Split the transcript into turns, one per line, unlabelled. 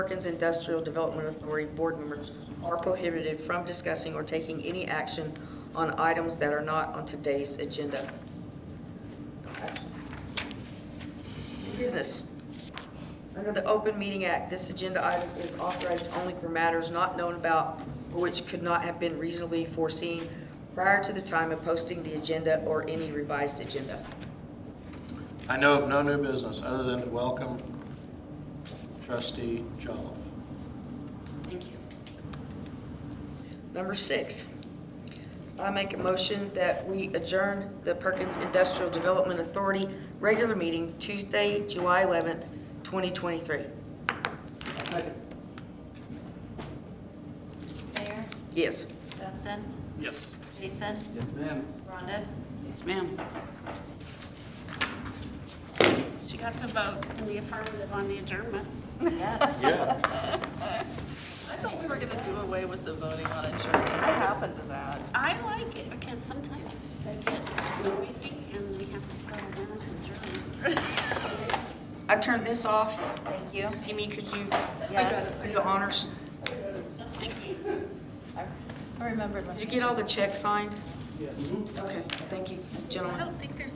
Perkins Industrial Development Authority board members are prohibited from discussing or taking any action on items that are not on today's agenda. New Business. Under the Open Meeting Act, this agenda item is authorized only for matters not known about or which could not have been reasonably foreseen prior to the time of posting the agenda or any revised agenda.
I know of no new business other than to welcome trustee Jolliffe.
Thank you. Number six, I make a motion that we adjourn the Perkins Industrial Development Authority regular meeting Tuesday, July 11th, 2023.
Mayor,
Yes.
Justin,
Yes.
Jason,
Yes, ma'am.
Rhonda.
Yes, ma'am. She got to vote in the affirmative on the adjournment.
Yeah.
I thought we were gonna do away with the voting on insurance. What happened to that?
I like it because sometimes they get noisy and we have to settle down and adjourn.
I turned this off.
Thank you.
Amy, could you
Yes.
do the honors?
Thank you.
I remembered my.
Did you get all the checks signed? Yes. Okay, thank you,
I
gentlemen.
don't think there's